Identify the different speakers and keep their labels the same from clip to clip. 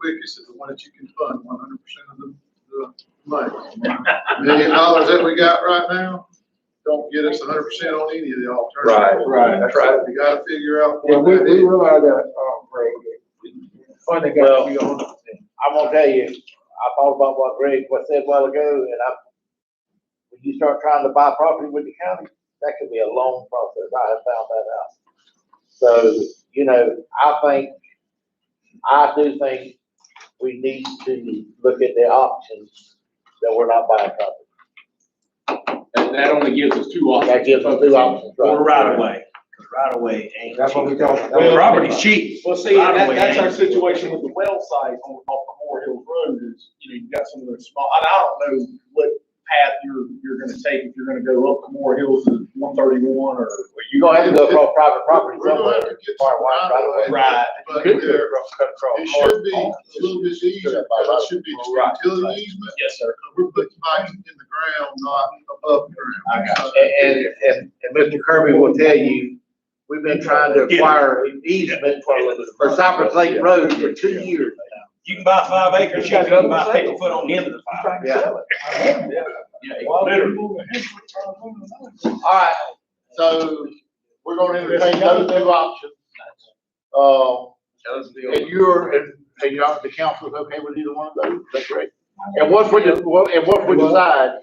Speaker 1: communities is the one that you can fund one hundred percent of the, the money. Million
Speaker 2: Right,
Speaker 1: dollars that we got right now, don't get us hundred percent on any of the alternatives.
Speaker 3: Right, that's right.
Speaker 1: You gotta figure out
Speaker 3: Yeah,
Speaker 1: what
Speaker 3: we,
Speaker 1: that
Speaker 3: we
Speaker 1: is.
Speaker 3: realize that, um, Greg, that funding got to be on the thing.
Speaker 4: I'm gonna tell you, I thought about what Greg, what said a while ago, and I, when you start trying to buy property with the county, that could be a long process. I have found that out. So, you know, I think, I do think we need to look at the options that we're not buying property.
Speaker 5: That, that only gives us two options.
Speaker 4: That gives us two options, right?
Speaker 6: Or right away, cause right away ain't.
Speaker 3: That's what we talking. that's what
Speaker 6: Well,
Speaker 3: we
Speaker 6: property's
Speaker 3: talking
Speaker 6: cheap.
Speaker 5: Well, see, and that, that's our
Speaker 6: Right away.
Speaker 5: situation with the well site on, off the Moore Hill Road is, you know, you got some of those small, and I don't know what path you're, you're gonna take, if you're gonna go up the Moore Hills to one thirty-one or.
Speaker 4: You're gonna have to go across private property
Speaker 1: We're gonna
Speaker 4: somewhere.
Speaker 1: have to get
Speaker 4: Far wide, right away.
Speaker 1: some right of way, but there- It should be a little bit easier, but it should be just
Speaker 4: Right.
Speaker 1: utility easement.
Speaker 5: Yes, sir.
Speaker 1: We're putting pipes in the ground, not above ground.
Speaker 4: And,
Speaker 1: So,
Speaker 4: and, and and Mr. Kirby will tell you, we've been trying to acquire easement for, for Cypress Lake Road for two years.
Speaker 6: You can buy five acres, you can buy paper foot on the end of the five.
Speaker 3: about.
Speaker 4: Yeah.
Speaker 6: Yeah, literally.
Speaker 4: All right,
Speaker 1: So we're gonna entertain those new options. Uh, and you're, and, and y'all, the council's okay with either one of those? That's great.
Speaker 2: and once we,
Speaker 1: de- what- and once we decide,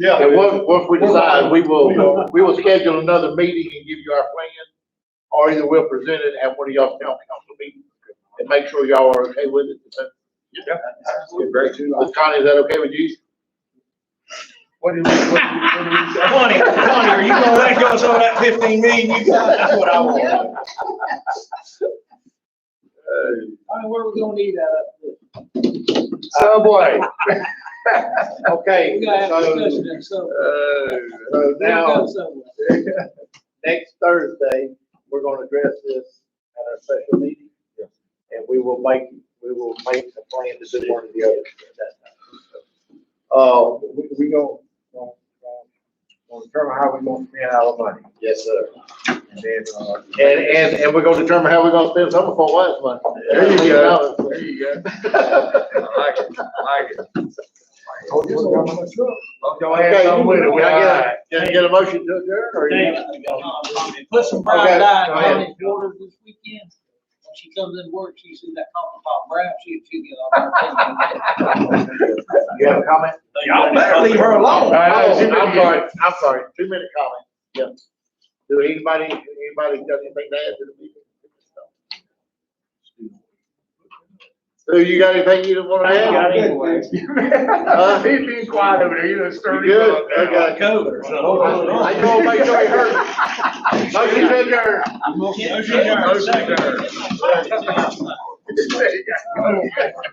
Speaker 2: yeah,
Speaker 1: and once, once we decide, we will, we will schedule another meeting and give you our plan. Or either we'll present it at one of y'all's town council meetings and make sure y'all are okay with it.
Speaker 3: Very cheap.
Speaker 1: Is Connie, is that okay with you?
Speaker 3: What do you, what do you, what do you? say?
Speaker 6: Connie, Connie, are you gonna let go of some of that fifteen million you got? That's what I want.
Speaker 5: where we gonna need that?
Speaker 3: Oh, boy.
Speaker 4: Uh, okay, so, so now, next Thursday, we're gonna address this at our special meeting. And we will make, we will make a plan to do one or the other.
Speaker 3: Uh, we, we gonna, gonna, gonna determine how we gonna spend our money.
Speaker 4: Yes, sir.
Speaker 3: And then, uh,
Speaker 4: And, and, and we're gonna determine how we're gonna spend some of our last money.
Speaker 3: There you go.
Speaker 1: There you go.
Speaker 3: told you we're coming to truck. Y'all
Speaker 4: Okay,
Speaker 3: had something with it.
Speaker 4: can I get a-
Speaker 3: Alright.
Speaker 4: Can I get a motion to adjourn or? you-
Speaker 7: Put some
Speaker 4: Okay,
Speaker 7: pride
Speaker 4: go
Speaker 7: eyes on
Speaker 4: ahead.
Speaker 7: his daughter this weekend. When she comes in work, she sees that coffee pot brown, she, she get all.
Speaker 4: You have a comment?
Speaker 6: Y'all better leave her alone.
Speaker 4: Oh, I'm sorry, I'm sorry, two minute comment, yeah. Do anybody, anybody got anything to add to the meeting? So you got anything you want to add? Huh?
Speaker 2: he's being quiet over there, you done
Speaker 4: You
Speaker 2: stirred him
Speaker 4: good?
Speaker 2: up now.
Speaker 4: Okay.
Speaker 6: Cover.
Speaker 4: I just want to make sure he heard. me. Motion to adjourn.
Speaker 6: Motion adjourned. Second.
Speaker 7: Motion adjourned.
Speaker 2: There you go.